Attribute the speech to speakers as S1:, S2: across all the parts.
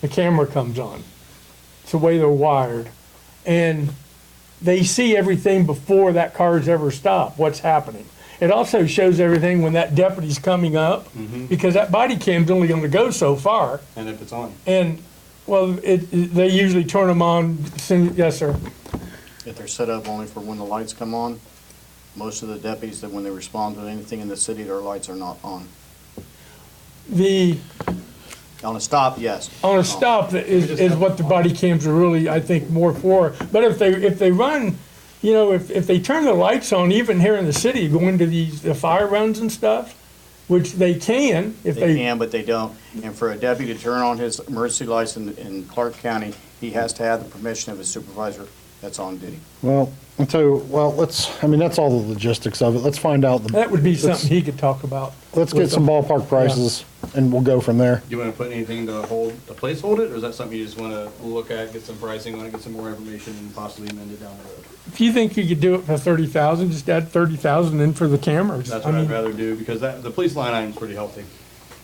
S1: the camera comes on. It's the way they're wired. And they see everything before that car's ever stopped, what's happening. It also shows everything when that deputy's coming up, because that body cam's only gonna go so far.
S2: And if it's on,
S1: And, well, it, it- they usually turn them on, soon, yes, sir.
S3: If they're set up only for when the lights come on, most of the deputies, that when they respond to anything in the city, their lights are not on.
S1: The,
S3: On a stop, yes. Um,
S1: on a stop that is, is what the body cams are really, I think, more for. But if they, if they run, you know, if, if they turn the lights on, even here in the city, going to these, the fire runs and stuff, which they can, if
S3: They
S1: they,
S3: can, but they don't. And for a deputy to turn on his emergency lights in, in Clark County, he has to have the permission of his supervisor that's on duty.
S4: Well, I'll tell you, well, let's, I mean, that's all the logistics of it. Let's find out, the
S1: that would be something he could talk about.
S4: let's get some ballpark prices and we'll go from there.
S2: do you wanna put anything to hold, to placehold it, or is that something you just wanna look at, get some pricing on it, get some more information and possibly amend it down the road?
S1: If you think you could do it for thirty thousand, just add thirty thousand in for the cameras.
S2: That's
S1: I
S2: what I'd
S1: mean,
S2: rather do, because that, the police line item's pretty healthy, to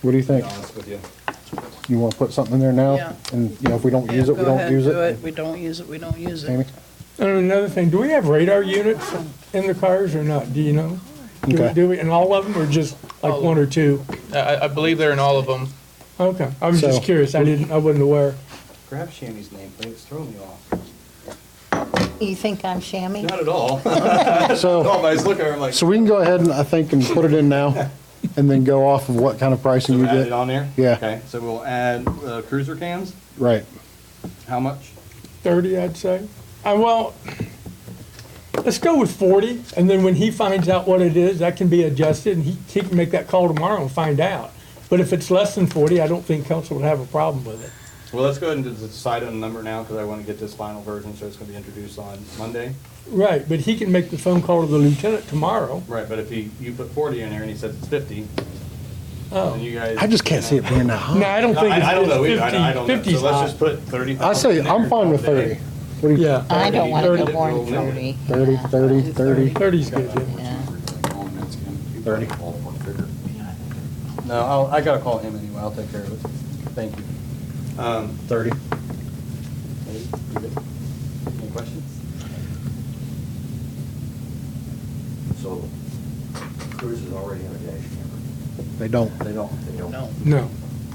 S4: What do you
S2: be
S4: think?
S2: honest with you.
S4: You want to put something in there now?
S5: Yeah.
S4: And, you know, if we don't use
S5: Yeah,
S4: it, we
S5: go
S4: don't
S5: ahead,
S4: use
S5: do
S4: it.
S5: We don't use it, we don't use
S4: Amy?
S5: it.
S1: And another thing, do we have radar units in the cars or not? Do you know? Do we-
S4: Okay.
S1: Do we, and all of them or just like one or two?
S6: I, I believe they're in all of them.
S1: Okay, I was
S4: So-
S1: just curious. I didn't, I wasn't aware.
S2: Grab Shami's name, please, it's throwing me off.
S7: You think I'm shammy?
S2: Not at all.
S4: So,
S2: No, but I just look at her, I'm like,
S4: so we can go ahead and I think and put it in now and then go off of what kind of pricing
S2: so
S4: you
S2: add it
S4: get.
S2: on there?
S4: Yeah.
S2: Okay, so we'll add uh, cruiser cams,
S4: Right.
S2: how much?
S1: 30, I'd say. Uh, well, let's go with 40, and then when he finds out what it is, that can be adjusted, and he, he can make that call tomorrow and find out. But if it's less than 40, I don't think council would have a problem with it.
S2: Well, let's go ahead and just decide on the number now, because I wanna get this final version, so it's gonna be introduced on Monday.
S1: Right, but he can make the phone call to the lieutenant tomorrow.
S2: Right, but if he, you put forty in there and he says it's fifty, then you guys.
S4: I just can't see it being that
S1: No,
S4: high.
S1: I don't
S2: No,
S1: think it's
S2: I, I don't know either, I don't- I
S1: it's
S2: don't
S1: 50,
S2: know,
S1: 50's
S2: so let's
S1: high.
S2: just put thirty thousand.
S4: I say, I'm fine with 30. What do you,
S1: Yeah,
S7: I don't want to go
S2: Thirty.
S7: more than
S4: 30,
S7: 40.
S4: 30, 30?
S1: 30's good, yeah.
S7: Yeah.
S4: Thirty.
S2: No, I'll, I gotta call him anyway, I'll take care of it, thank you. Um,
S4: 30.
S2: any questions?
S8: So cruises already have a dash camera.
S4: They don't.
S8: They don't, they don't.
S5: No.
S1: No,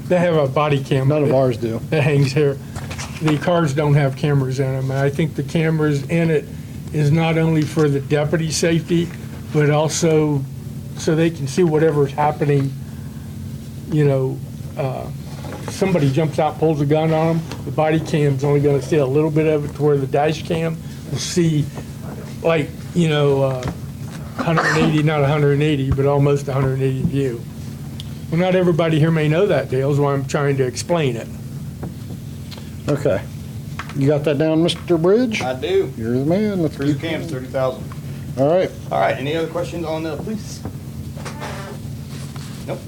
S1: they have a body cam.
S4: None of ours do.
S1: that hangs here. The cars don't have cameras in them, and I think the cameras in it is not only for the deputy's safety, but also so they can see whatever's happening. You know, uh, somebody jumps out, pulls a gun on them, the body cam's only gonna see a little bit of it to where the dash cam will see, like, you know, uh, 180, not 180, but almost 180 view. Well, not everybody here may know that, Dale, is why I'm trying to explain it.
S4: Okay. You got that down, Mr. Bridge?
S2: I do,
S4: You're the man. Let's
S2: cruiser
S4: keep,
S2: cams, thirty thousand.
S4: all right.
S2: All right, any other questions on the police? Nope.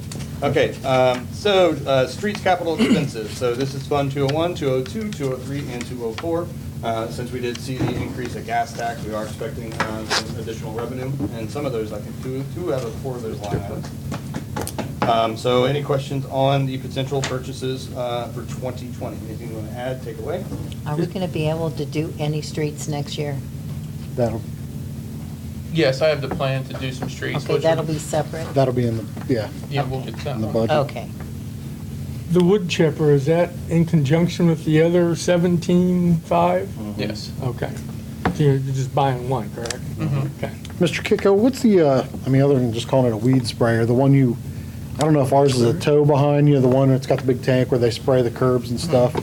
S2: Okay, um, so, uh, streets capital expenses, so this is Fund 201, 202, 203, and 204. Uh, since we did see the increase of gas tax, we are expecting, uh, some additional revenue, and some of those, I think, two, two out of four of those line items. Um, so any questions on the potential purchases, uh, for 2020? Anything you wanna add, take away?
S7: Are we going to be able to do any streets next year?
S4: That'll,
S6: Yes, I have the plan to do some streets.
S7: Okay,
S6: which-
S7: that'll be separate.
S4: that'll be in the, yeah,
S6: Yeah, we'll get that
S4: in the
S6: one.
S4: budget.
S7: Okay.
S1: The wood chipper, is that in conjunction with the other seventeen five?
S6: Yes.
S1: Okay. So you're just buying one, correct? Okay.
S4: Mr. Kiko, what's the, uh, I mean, other than just calling it a weed sprayer, the one you, I don't know if ours is a tow behind you, the one that's got the big tank where they spray the curbs and stuff.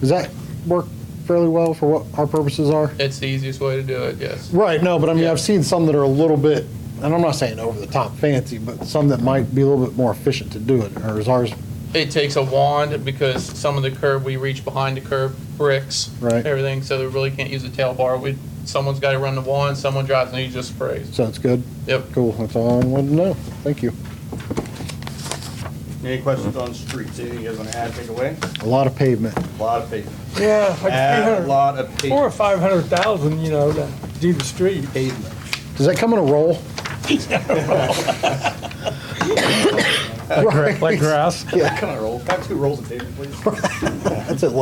S4: Does that work fairly well for what our purposes are?
S6: It's the easiest way to do it, yes.
S4: Right, no, but I mean,
S6: Yeah.
S4: I've seen some that are a little bit, and I'm not saying over the top fancy, but some that might be a little bit more efficient to do it, or is ours,
S6: It takes a wand because some of the curb, we reach behind the curb, bricks,
S4: Right.
S6: everything, so they really can't use the tail bar. We, someone's got to run the wand, someone drives, and he just sprays.
S4: so it's good?
S6: Yep.
S4: Cool, that's all I wanted to know. Thank you.
S2: Any questions on streets? Anything you guys wanna add, take away?
S4: A lot of pavement.
S2: A Lot of pavement.
S1: Yeah, like three
S2: Add a
S1: hundred,
S2: lot of pavement.
S1: four or five hundred thousand, you know, to do the street.
S2: pavement.
S4: Does that come in a roll?
S1: Like grass.
S2: Come on, roll. Back two rolls of pavement, please.
S4: That's it.